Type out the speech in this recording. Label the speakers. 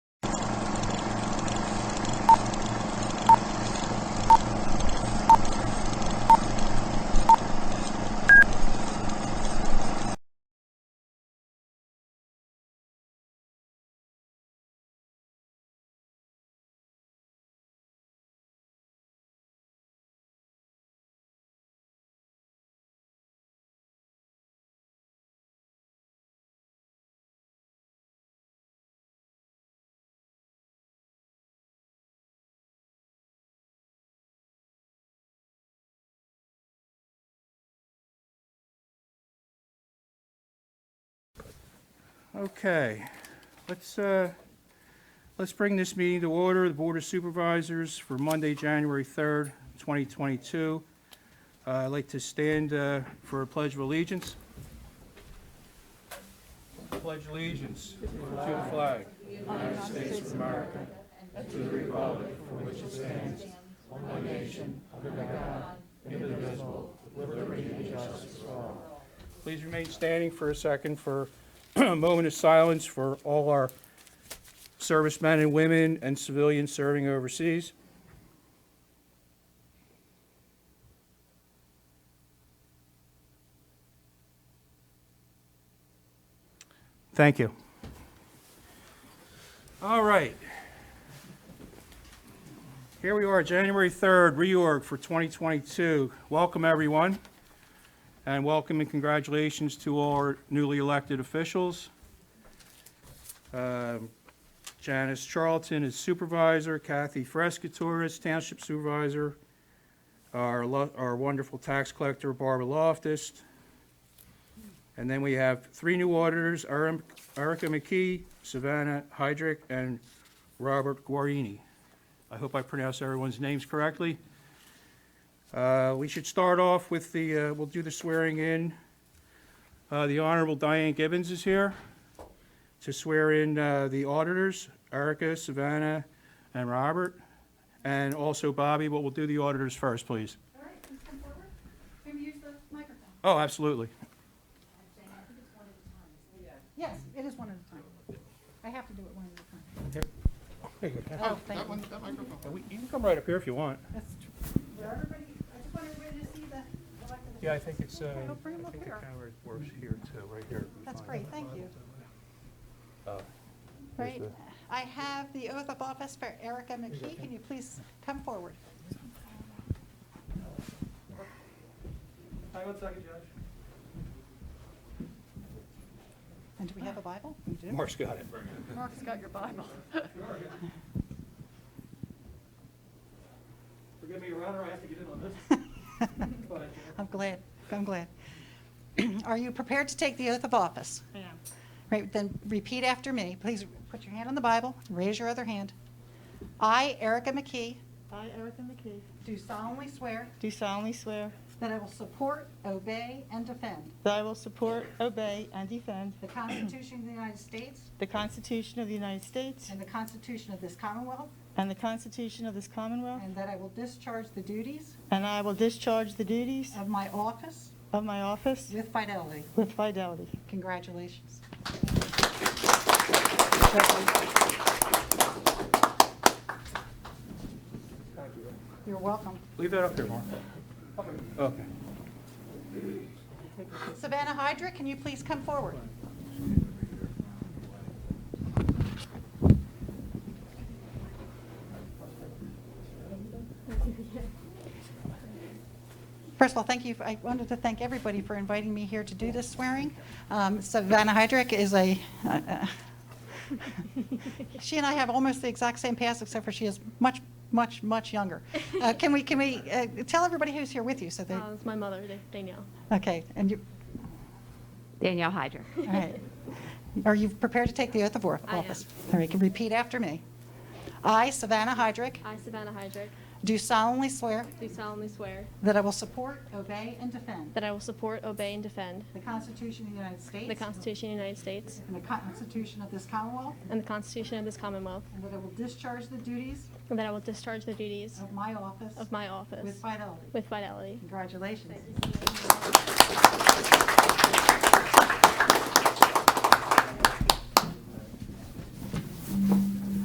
Speaker 1: Okay, let's, uh, let's bring this meeting to order, the Board of Supervisors for Monday, January 3rd, 2022. Uh, I'd like to stand uh, for a pledge of allegiance. Pledge allegiance to the flag Please remain standing for a second for a moment of silence for all our servicemen and women and civilians serving overseas. Thank you. All right. Here we are, January 3rd, reorg for 2022. Welcome, everyone. And welcome and congratulations to all our newly elected officials. Um, Janice Charlton is supervisor, Kathy Frescatore is township supervisor, our lo- our wonderful tax collector Barbara Loftus. And then we have three new auditors, Erin- Erica McKee, Savannah Hydrick, and Robert Guarini. I hope I pronounced everyone's names correctly. Uh, We should start off with the, uh, we'll do the swearing in. Uh, The Honorable Diane Gibbons is here to swear in uh, the auditors, Erica, Savannah, and Robert, and also Bobby, but we'll do the auditors first, please.
Speaker 2: All right, please come forward. Maybe use the microphone.
Speaker 1: Oh, absolutely.
Speaker 2: Yes, it is one at a time. I have to do it one at a time. Oh, thank
Speaker 3: That
Speaker 2: you.
Speaker 3: one, that microphone.
Speaker 1: Yeah, Uh, we- You can come right up here if you want.
Speaker 2: That's tr- Where everybody, I just want everybody to see the elected
Speaker 1: Yeah, I think it's, uh,
Speaker 2: Okay,
Speaker 1: I
Speaker 2: well, bring 'em
Speaker 1: think
Speaker 2: up
Speaker 1: the
Speaker 2: here.
Speaker 1: camera works here too, right here.
Speaker 2: officials. That's great, thank you.
Speaker 1: Uh, here's
Speaker 2: Great. I have the oath of office for Erica McKee. Can you please come forward?
Speaker 4: Hang on a second, Judge.
Speaker 2: And do we have a Bible? We do.
Speaker 1: Mark's got it.
Speaker 2: Mark's got your Bible.
Speaker 4: Forgive me, Your Honor, I have to get in on this. But I can't.
Speaker 2: I'm glad, I'm glad. Are you prepared to take the oath of office?
Speaker 5: Yeah.
Speaker 2: Right, then repeat after me. Please put your hand on the Bible, raise your other hand. I, Erica McKee,
Speaker 5: I, Erica McKee,
Speaker 2: do solemnly swear
Speaker 5: do solemnly swear
Speaker 2: that I will support, obey, and defend
Speaker 5: that I will support, obey, and defend
Speaker 2: the Constitution of the United States
Speaker 5: the Constitution of the United States
Speaker 2: and the Constitution of this Commonwealth,
Speaker 5: and the Constitution of this Commonwealth,
Speaker 2: and that I will discharge the duties
Speaker 5: and I will discharge the duties
Speaker 2: of my office
Speaker 5: of my office
Speaker 2: with fidelity.
Speaker 5: with fidelity.
Speaker 2: Congratulations. You're welcome.
Speaker 1: Leave that up there, Mark. Okay.
Speaker 2: Savannah Hydra, can you please come forward? First of all, thank you, I wanted to thank everybody for inviting me here to do this swearing. Um, Savannah Hydrick is a, uh, uh, she and I have almost the exact same past, except for she is much, much, much younger. Uh, Can we, can we uh, tell everybody who's here with you so they,
Speaker 6: Uh, it's my mother, Da- Danielle.
Speaker 2: okay, and you,
Speaker 7: Danielle Hydra.
Speaker 2: All right. Are you prepared to take the oath of or-
Speaker 6: I am.
Speaker 2: office? All right, can you repeat after me. I, Savannah Hydrick,
Speaker 6: I, Savannah Hydrick,
Speaker 2: do solemnly swear
Speaker 6: do solemnly swear
Speaker 2: that I will support, obey, and defend
Speaker 6: that I will support, obey, and defend
Speaker 2: the Constitution of the United States
Speaker 6: the Constitution of the United States
Speaker 2: and the Constitution of this Commonwealth,
Speaker 6: and the Constitution of this Commonwealth,
Speaker 2: and that I will discharge the duties
Speaker 6: and that I will discharge the duties
Speaker 2: of my office
Speaker 6: of my
Speaker 2: with
Speaker 6: office
Speaker 2: fidelity.
Speaker 6: with fidelity.
Speaker 2: Congratulations.